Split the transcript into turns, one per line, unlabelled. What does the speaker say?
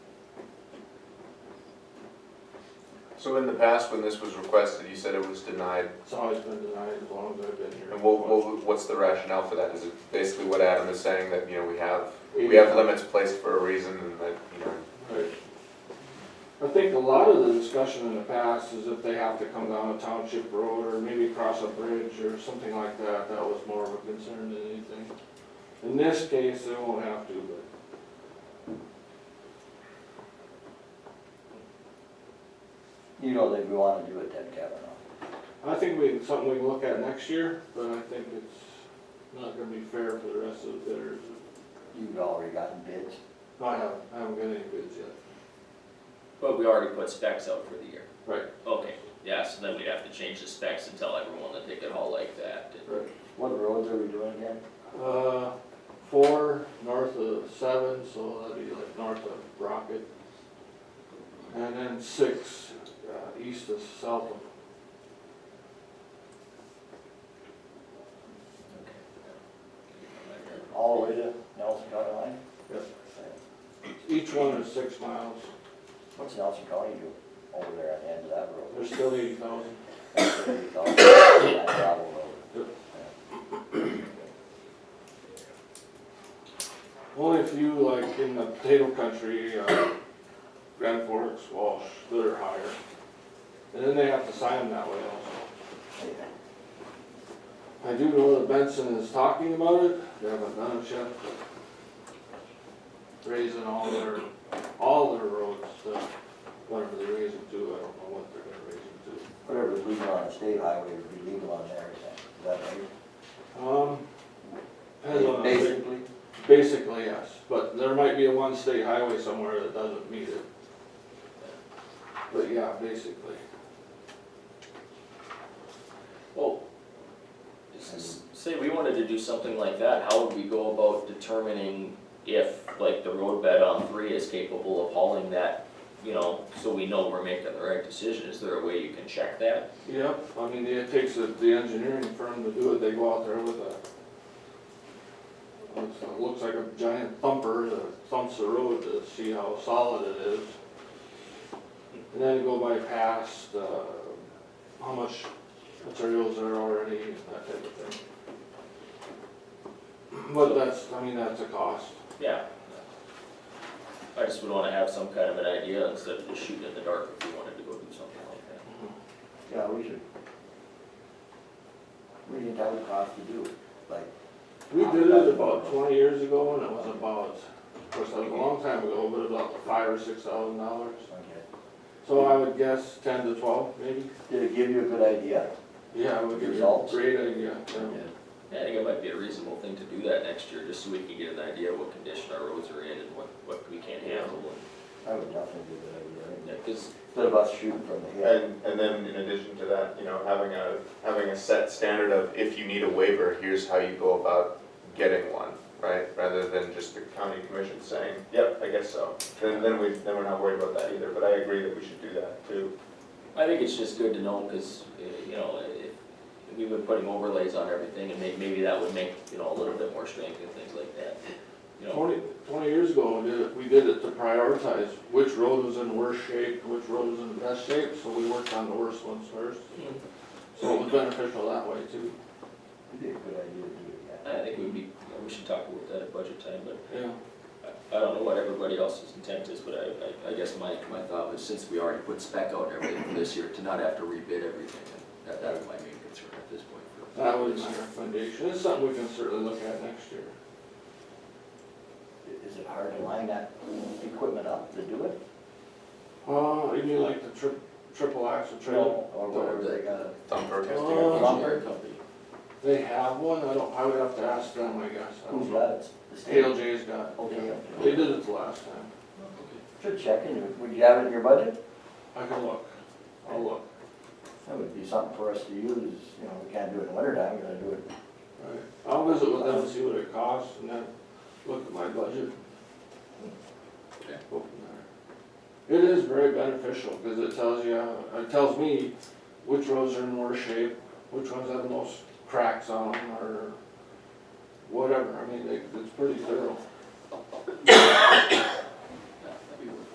So in the past, when this was requested, you said it was denied,
It's always been denied as long as I've been here.
and what, what, what's the rationale for that? Is it basically what Adam is saying, that, you know, we have,
We-
we have limits placed for a reason, and that, you know,
Right. I think a lot of the discussion in the past is if they have to come down a township road or maybe cross a bridge or something like that, that was more of a concern than anything. In this case, they won't have to, but.
You know that we wanna do it then, Kevin. huh?
I think we, it's something we can look at next year, but I think it's not gonna be fair for the rest of the bidders.
You've already gotten bids.
I haven't, I haven't got any bids yet.
But we already put specs out for the year.
Right.
Okay, yeah, so then we'd have to change the specs and tell everyone that they could haul like that.
Right.
What roads are we doing again?
Uh, four, north of seven, so that'd be like north of Rocket. And then six, uh, east of Southam.
All the way to Nelson County line?
Yep.
Okay.
Each one is six miles,
What's Nelson County do over there at the end of that road?
there's still eighty thousand.
That's what we call it, that gravel road.
Only a few like in the potato country, uh, Grand Forks, Walsh, that are higher. And then they have to sign them that way also. I do know that Benson is talking about it, they haven't done it yet. but Raising all their, all their roads, to whatever they raise them to, I don't know what they're gonna raise them to.
Whatever's legal on a state highway would be legal on there, is that- is that right?
Um, depends on, the-
Basically,
basically, yes, but there might be a one state highway somewhere that doesn't meet it. But yeah, basically,
Well, s- s- say we wanted to do something like that, how would we go about determining if, like, the road bed on three is capable of hauling that, you know, so we know we're making the right decision? Is there a way you can check that?
yep, I mean, it takes the, the engineering firm to do it, they go out there with a, looks, it looks like a giant thumper that thumps the road to see how solid it is. And then go by past, uh, how much materials are already, and that type of thing. But that's, I mean, that's a cost.
Yeah. I just would wanna have some kind of an idea instead of just shooting in the dark if we wanted to go do something like that.
yeah, we should. We didn't have a cost to do it, like,
We did it about twenty years ago, and it was about, of course, that was a long time ago, but about five or six thousand dollars.
okay.
So I would guess ten to twelve, maybe?
Did it give you a good idea?
Yeah, I would give you a
Results.
great idea, yeah.
Yeah, I think it might be a reasonable thing to do that next year, just so we can get an idea of what condition our roads are in and what, what we can handle.
I would definitely give it a good idea.
And, cause
Instead of us shooting from the hip.
And, and then in addition to that, you know, having a, having a set standard of if you need a waiver, here's how you go about getting one, right? Rather than just the county commission saying, yep, I guess so. Then, then we, then we're not worried about that either, but I agree that we should do that too.
I think it's just good to know, cause, uh, you know, if, if we've been putting overlays on everything, and may, maybe that would make, you know, a little bit more strength and things like that. You know,
Twenty, twenty years ago, we did it, we did it to prioritize which road was in worse shape, which road was in the best shape, so we worked on the worst ones first.
Mhm.
So it was beneficial that way too.
It'd be a good idea to do it, yeah.
I think we'd be, you know, we should talk about that at budget time, but
Yeah.
I, I don't know what everybody else's intent is, but I, I, I guess my, my thought was, since we already put spec out and everything for this year, to not have to rebid everything, and that, that was my main concern at this point. for-
That would be my recommendation. It's something we can certainly look at next year.
Is it hard to line that equipment up to do it?
Uh, you mean like the tri- triple axle trailer?
Or whatever they got.
Thumper
Oh.
testing.
lumber.
Engineering company.
They have one, I don't, I would have to ask them, I guess, I
Who's
don't know.
got it? The state?
ALJ's got,
Okay.
it. they did it the last time,
Should check in, would you have it in your budget?
I can look, I'll look.
That would be something for us to use, you know, we can't do it in winter time, we're gonna do it.
Right. I'll visit with them, and see what it costs, and then look at my budget.
Okay.
Go from there. It is very beneficial, because it tells you, it tells me which roads are in worse shape, which ones have the most cracks on them, or whatever, I mean, it- it's pretty thorough.